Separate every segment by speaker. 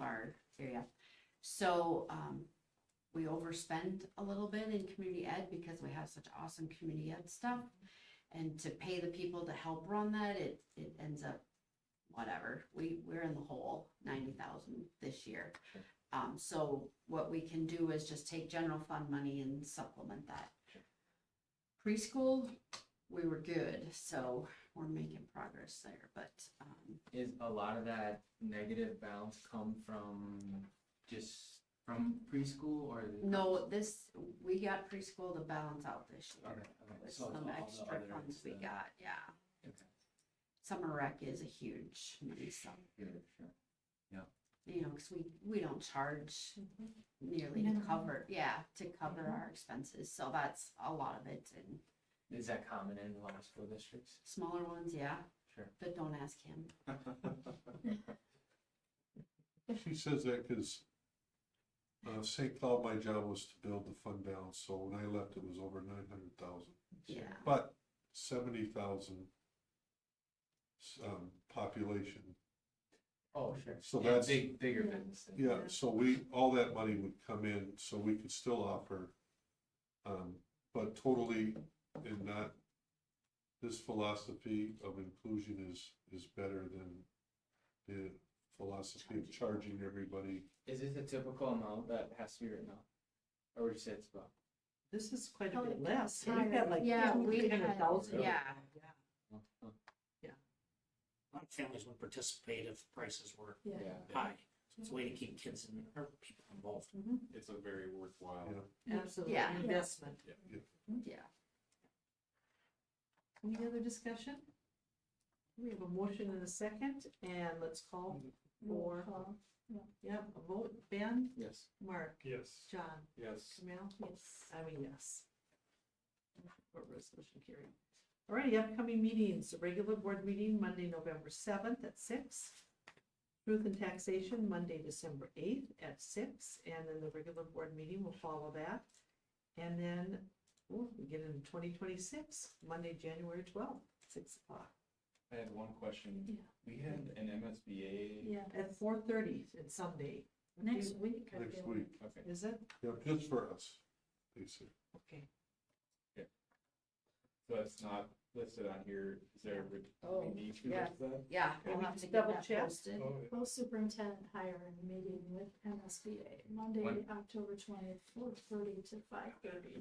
Speaker 1: our area. So, um, we overspend a little bit in community ed because we have such awesome community ed stuff. And to pay the people to help run that, it, it ends up, whatever, we, we're in the hole, ninety thousand this year.
Speaker 2: Sure.
Speaker 1: Um, so what we can do is just take general fund money and supplement that.
Speaker 2: Sure.
Speaker 1: Preschool, we were good, so we're making progress there, but, um,
Speaker 2: Is a lot of that negative balance come from just from preschool or? is it-
Speaker 1: no, this, we got preschool to balance out this
Speaker 2: Okay,
Speaker 1: year.
Speaker 2: okay,
Speaker 1: With
Speaker 2: so it's all
Speaker 1: some
Speaker 2: the
Speaker 1: extra
Speaker 2: other
Speaker 1: funds we
Speaker 2: stuff.
Speaker 1: got, yeah.
Speaker 2: Okay,
Speaker 1: Summer rec is a huge money sum,
Speaker 2: good, sure.
Speaker 1: you know, cause we, we don't charge nearly to
Speaker 3: Minimum.
Speaker 1: cover, yeah, to cover our expenses, so that's a lot of it and
Speaker 2: Is that common in a lot of school districts?
Speaker 1: smaller ones, yeah,
Speaker 2: Sure.
Speaker 1: but don't ask him.
Speaker 4: She says that because uh, St. Cloud, my job was to build the fund balance, so when I left, it was over nine hundred thousand.
Speaker 1: Yeah,
Speaker 4: But seventy thousand um, population,
Speaker 2: Oh, sure.
Speaker 4: So
Speaker 2: Yeah,
Speaker 4: that's-
Speaker 2: Big, bigger
Speaker 3: Yeah.
Speaker 2: businesses.
Speaker 4: yeah, so we, all that money would come in, so we could still offer. Um, but totally and not, this philosophy of inclusion is, is better than the philosophy of charging everybody.
Speaker 2: Is this a typical amount that has to be written off? Or would you say it's about?
Speaker 3: This is quite a
Speaker 1: Oh,
Speaker 3: bit less. We've
Speaker 1: higher.
Speaker 3: had like
Speaker 1: Yeah, we
Speaker 3: three
Speaker 1: had-
Speaker 3: hundred thousand.
Speaker 1: yeah,
Speaker 2: oh, oh,
Speaker 5: A lot of families wouldn't participate if prices were
Speaker 3: Yeah.
Speaker 5: high. So it's a way to keep kids and or people involved.
Speaker 6: it's a very worthwhile.
Speaker 4: Yeah.
Speaker 3: Absolutely.
Speaker 1: Yeah.
Speaker 3: Investment.
Speaker 1: yeah.
Speaker 3: Any other discussion? We have a motion and a second, and let's call for,
Speaker 5: Mm-hmm.
Speaker 3: yep, a vote. Ben,
Speaker 2: Yes.
Speaker 3: Mark,
Speaker 6: Yes.
Speaker 3: John,
Speaker 6: Yes.
Speaker 3: Camille? Yes. I mean, yes. Or resolution carried. All righty, upcoming meetings, the regular board meeting Monday, November seventh at six. Truth and taxation, Monday, December eighth at six, and then the regular board meeting will follow that. And then, ooh, we get into twenty twenty-six, Monday, January twelfth, six o'clock.
Speaker 6: I had one question.
Speaker 3: Yeah.
Speaker 6: We had an MSBA.
Speaker 3: Yeah. At four thirty on Sunday. Next week.
Speaker 4: Next week,
Speaker 6: Okay.
Speaker 3: Is it?
Speaker 4: yeah, just for us, they said.
Speaker 3: Okay.
Speaker 6: So it's not listed on here. Is there, we
Speaker 1: Oh,
Speaker 6: need to
Speaker 1: yeah.
Speaker 6: list that?
Speaker 1: Yeah,
Speaker 3: Yeah,
Speaker 1: we'll
Speaker 3: we
Speaker 1: have to
Speaker 3: just
Speaker 1: get
Speaker 3: double
Speaker 1: that
Speaker 3: check.
Speaker 1: posted.
Speaker 7: Well, superintendent hiring meeting with MSBA, Monday,
Speaker 2: When?
Speaker 7: October twentieth, four thirty to five thirty.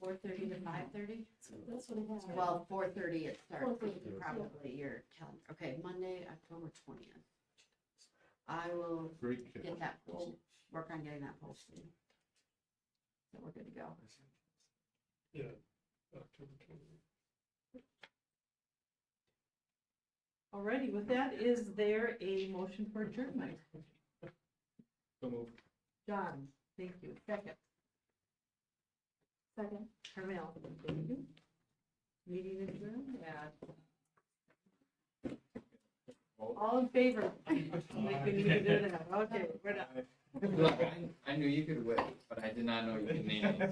Speaker 1: Four thirty to five thirty?
Speaker 7: That's what I have.
Speaker 1: Well, four thirty it starts,
Speaker 7: 4:30, yeah.
Speaker 1: probably your calendar, okay, Monday, October twentieth. I will
Speaker 4: Great kid.
Speaker 1: get that, we'll work on getting that posted. So we're good to go.
Speaker 3: Alrighty, with that, is there a motion for adjournment?
Speaker 6: So move.
Speaker 3: John, thank you. Second,
Speaker 7: Second.
Speaker 3: Carmel, thank you. Meeting adjourned at. All in favor? Like we need to do that. Okay, we're done.
Speaker 2: Look, I, I knew you could wait, but I did not know you could name it.